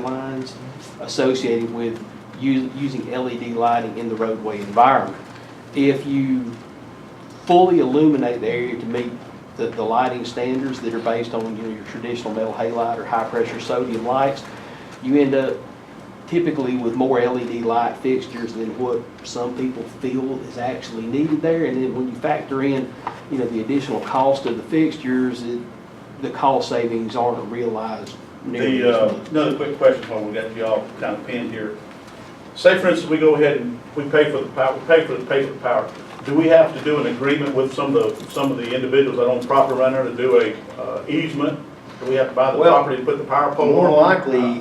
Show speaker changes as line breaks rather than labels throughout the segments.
guidelines associated with u- using LED lighting in the roadway environment. If you fully illuminate the area to meet the, the lighting standards that are based on, you know, your traditional metal halide or high-pressure sodium lights, you end up typically with more LED light fixtures than what some people feel is actually needed there. And then when you factor in, you know, the additional cost of the fixtures, it, the cost savings aren't realized nearly
The,
as
uh,
much.
another quick question while we got you all kind of pinned here. Say, for instance, we go ahead and we pay for the power, we pay for the, pay for the power. Do we have to do an agreement with some of the, some of the individuals that own property around there to do a uh, easement? Do we have to buy the
Well,
property to put the power pole?
More
on?
likely,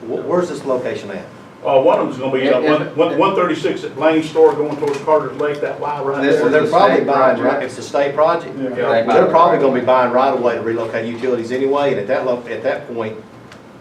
wh- where's this location at?
Uh, one of them's gonna be, uh,
If-
one,
if-
one, one thirty-six at Lane Store going towards Carter's Lake, that Y right
They're
there.
they're
a
probably
state
buying,
project.
right- it's a state project.
Yeah.
They buy
They're
the
probably
right
gonna be buying right away to relocate utilities anyway, and at that lo, at that point,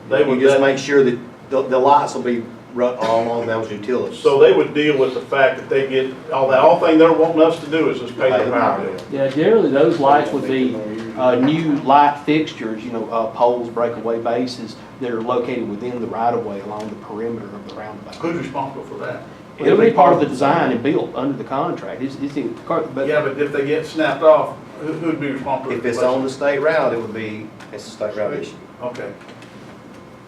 They would,
you just
that-
make sure that the, the lights will be run all along those utilities.
so they would deal with the fact that they get, all that, all thing they're wanting us to do is just pay
Pay
the power bill.
Yeah, generally, those lights would be uh, new light fixtures, you know, uh, poles, breakaway bases that are located within the right-of-way along the perimeter of the roundabout.
Who's responsible for that?
It'll be part of the design and built under the contract. It's, it's in, but
Yeah, but if they get snapped off, who- who'd be responsible?
If it's on the state route, it would be, it's a state route issue.
Okay.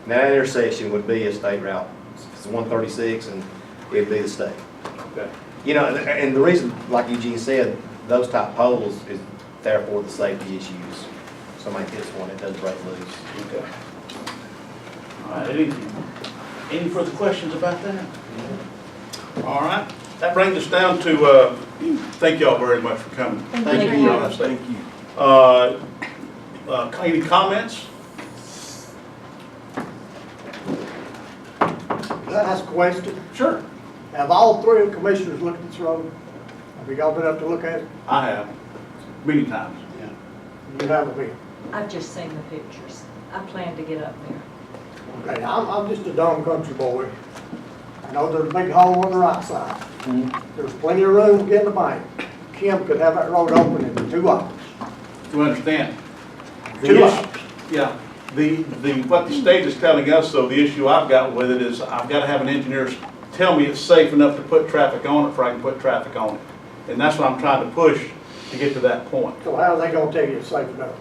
And That intersection would be a state route, it's one thirty-six, and it'd be the state.
Okay.
You know, and- and the reason, like Eugene said, those type poles is therefore the safety issues. Somebody hits one, it does break loose.
Okay. All right, any, any further questions about that? All right, that brings us down to, uh, thank y'all very much for coming.
Thank you.
Thank you, y'all, thank you. Uh, uh, any comments?
Can I ask a question?
Sure.
Have all three commissioners looked at this road? Have you all been up to look at it?
I have, many times.
You haven't been.
I've just seen the pictures. I plan to get up there.
Okay, I'm, I'm just a dumb country boy. I know there's a big hole on the right side.
Mm-hmm.
There's plenty of room to get in the bank. Kim could have that road open in two hours.
Do you understand?
Two
Yes.
hours.
Yeah, the, the, what the state is telling us, though, the issue I've got with it is I've got to have an engineer s- tell me it's safe enough to put traffic on it before I can put traffic on it. And that's what I'm trying to push to get to that point.
So how are they gonna tell you it's safe enough?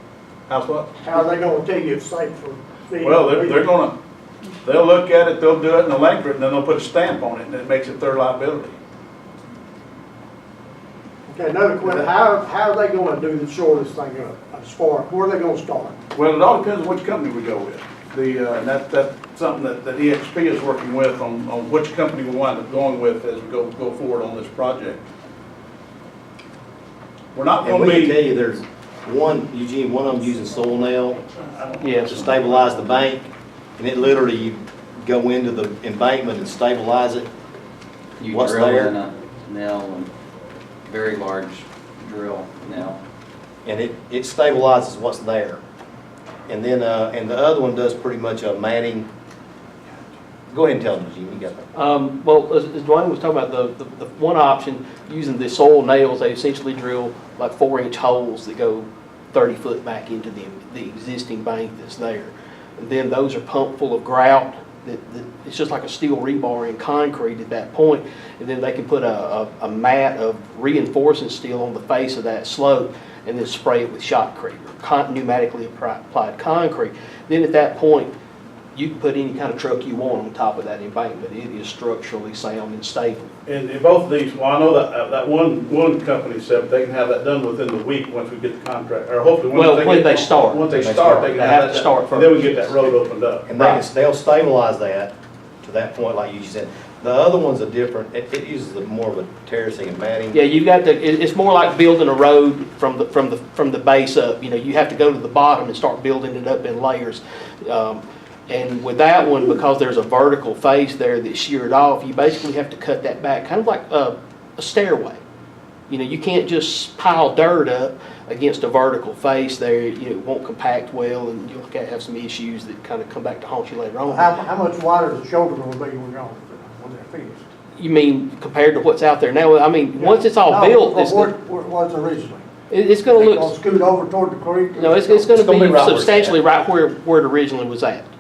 How's what?
How are they gonna tell you it's safe for the?
Well, they're, they're gonna, they'll look at it, they'll do it and they'll anchor it and then they'll put a stamp on it and it makes it their liability.
Okay, another question, how, how are they gonna do the shortest thing up, as far, where are they gonna start?
Well, it all depends on which company we go with. The, uh, and that, that's something that, that EXP is working with on, on which company we wind up going with as we go, go forward on this project. We're not
And
gonna
we
be.
can tell you, there's one, Eugene, one of them using soil nail
yes.
to stabilize the bank, and it literally, you go into the embankment and stabilize it.
You
What's
drill
there?
in a nail and very large drill nail.
and it, it stabilizes what's there. And then, uh, and the other one does pretty much a matting. Go ahead and tell them, Gene, you got that.
Um, Well, as as Dwayne was talking about, the, the the one option, using the soil nails, they essentially drill like four-inch holes that go 30 foot back into the, the existing bank that's there. And Then those are pumped full of grout, that, that, it's just like a steel rebar in concrete at that point. And then they can put a, a- a mat of reinforcing steel on the face of that slope and then spray it with shotcrete or con- pneumatically appri- applied concrete. Then at that point, you can put any kind of truck you want on top of that embankment. It is structurally sound and stable.
And in both of these, well, I know that, uh, that one, one company said they can have that done within the week once we get the contract, or hopefully. once
Well, when
get-
they start.
Once they
They
start,
start.
they can
They
have
have
that.
to start
done. And then we
first.
get that road opened up.
And they can, they'll stabilize that to that point, like you said. The other one's a different, it, it uses a more of a terracing and matting.
Yeah, you've got to, it, it's more like building a road from the, from the, from the base up. You know, you have to go to the bottom and start building it up in layers. Um, And with that one, because there's a vertical face there that's sheared off, you basically have to cut that back, kind of like a, a stairway. You know, you can't just pile dirt up against a vertical face there. You know, it won't compact well and you'll have some issues that kind of come back to haunt you later on.
How, how much wider is the shoulder gonna be when y'all, when they're finished?
You mean compared to what's out there now? I mean, once it's all
No,
built,
from
it's,
Where,
it-
where it was originally.
it's gonna
They gonna
look,
scoot over toward the creek?
no, it's, it's gonna
It's gonna
be
be right where it's
substantially right where, where it originally was at.